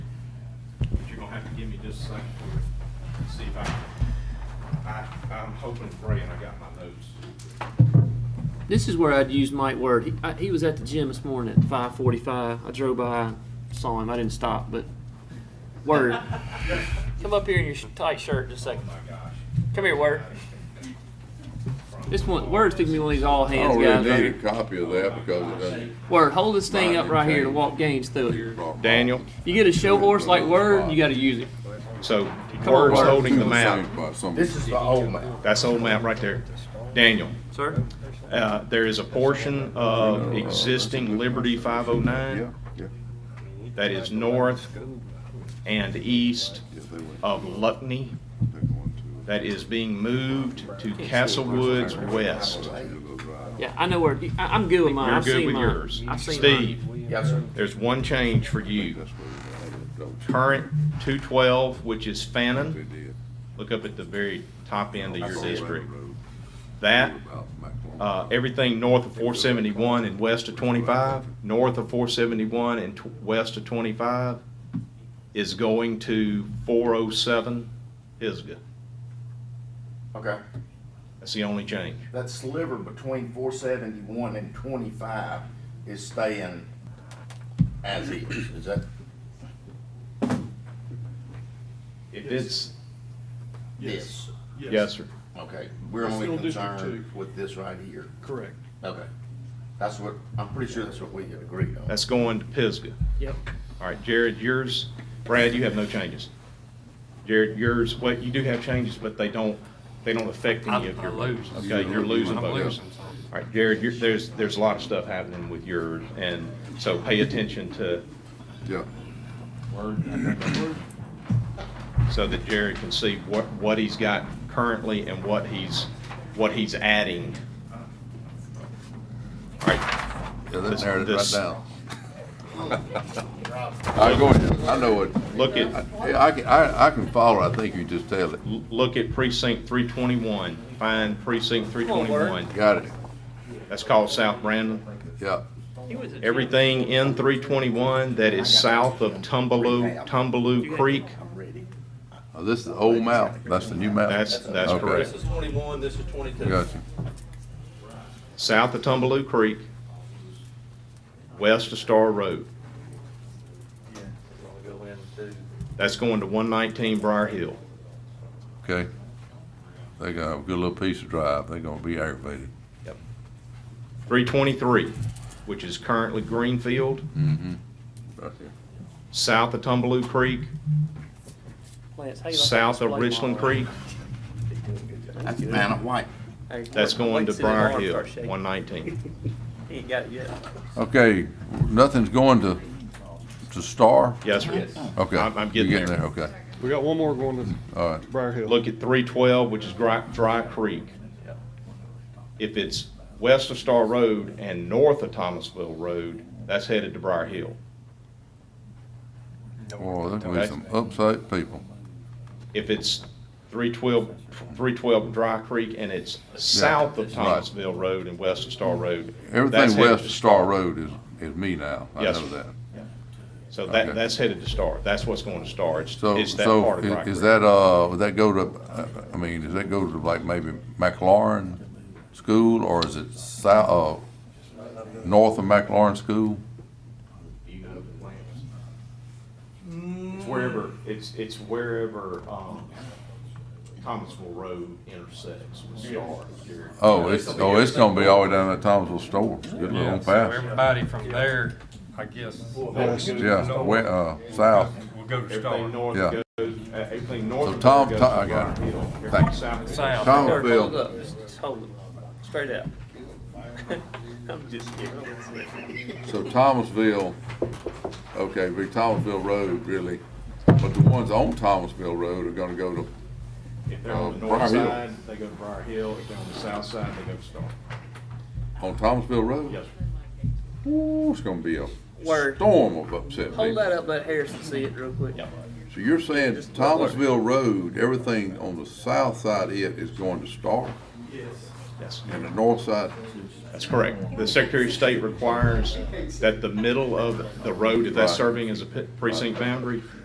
give me just a second here, see if I, I, I'm hoping and praying I got my notes. This is where I'd use Mike Word. He, I, he was at the gym this morning at five forty-five. I drove by, saw him. I didn't stop, but Word, come up here in your sh- tight shirt just a Oh second. my gosh. Come here, Word. This one, Word's gonna be one of these all I hands don't Oh, guys. Right really Oh, need a here. copy of that because it doesn't. Word, hold this thing up Mine right here to contains- walk gains through it. Daniel? You get a show horse like Word, you got to use it. So Come on, Word's Word. holding the map. map. This is the old map. That's the old map right there. Daniel, Sir, uh, there is a portion of existing Liberty five oh nine that is north and east of Luckney that is being moved to Castlewoods West. yeah, I know where. I, I'm good with mine. You're I've good seen with mine. yours. I've seen Steve, mine. Yes, sir. there's one change for you. Current two twelve, which is Fannin, look up at the very top end of your district. That, uh, everything north of four seventy-one and west of twenty-five, north of four seventy-one and tw- west of twenty-five is going to four oh seven Pisgah. Okay. That's the only change. That sliver between four seventy-one and twenty-five is staying as is, is that? If it's, Yes. yes, sir. Okay, we're That's only still District concerned with this right here. Correct. Okay. That's what, I'm pretty sure that's what we had agreed on. That's going to Pisgah. Yep. All right, Jared, yours, Brad, you have no changes. Jared, yours, well, you do have changes, but they don't, they don't affect any of your votes. Okay, you're losing votes. All right, Jared, you're, there's, there's a lot of stuff happening with yours, and so pay attention to, Yeah, so that Jared can see what, what he's got currently and what he's, what he's adding. All right, yeah, that This- narrowed it right this- down. I go ahead, I know it. look at, I- Yeah, I can, I, I can follow, I think you just tell it. l- look at precinct three twenty-one, find precinct three on, Bert. twenty-one. Got it, That's called South Brandon. yeah. He was at Everything in three twenty-one that is south of Tumbaloo, Tumbaloo Creek, I'm ready. Now, Uh, this is the old map, that's the new map? that's, that's Okay. correct. This is twenty-one, this is twenty-two. Got you. South of Tumbaloo Creek, west of Star Road. We'll go into That's going to one nineteen Briar Hill. Okay. They got a good little piece of drive. They're gonna be aggravated. Three twenty-three, which is currently Greenfield, Right there. south of Tumbaloo Creek, Lance, how you like that south of display Richland model? Creek. That's Vanna White. Hey, That's wait- going wait to till his Briar arm Hill, starts shaking. one nineteen. He ain't got it yet. Okay, nothing's going to, to Star? Yes, sir. Okay. I'm- I'm getting You're there. Okay, We got one more going to all right. Briar Hill. look at three twelve, which is Dry, Dry Creek. If it's west of Star Road and north of Thomasville Road, that's headed to Briar Hill. Boy, there's gonna be some upside people. If it's 312 312 Dry Creek and it's south of Thomasville Road and west of Star Road. that's Everything headed west to of Star Road is, is me now. I Yes, know sir. that. So that, Okay. that's headed to Star. That's what's going to Star. It's, So, it's that part so of Dry i- is Creek. that, uh, would that go to, uh, I mean, does that go to like maybe McLaurin School or is it south, uh, north of McLaurin School? It's wherever, it's, it's wherever, um, Thomasville Road intersects with Star. Jared. Oh, it's, oh, it's gonna be all the way down to Thomasville Store. Good Yeah, little so path. everybody from there, I guess, will Yeah, we, uh, south. go to Everything Star. north Yeah. goes, uh, everything north. So of Tom- there Tom- goes I to got it. Briar Hill. Everything Thank you. south goes- South. Word, hold it Thomasville, up. Just- just hold it. Straight out. I'm just kidding. so Thomasville, okay, be Thomasville Road really, but the ones on Thomasville Road are gonna go to, If they're on the Uh, north Briar Hill. side, they go to Briar Hill. If they're on the south side, they go to Star. on Thomasville Road? Yes, sir. Ooh, it's gonna be a Word. storm of upset Hold people. that up, let Harrison see it real quick. So you're saying Just one word. Thomasville Road, everything on the south side of it is going to Star Yes, and the north side? that's correct. The Secretary of State requires that the middle of the road, if that's Right. serving as a pe- precinct boundary,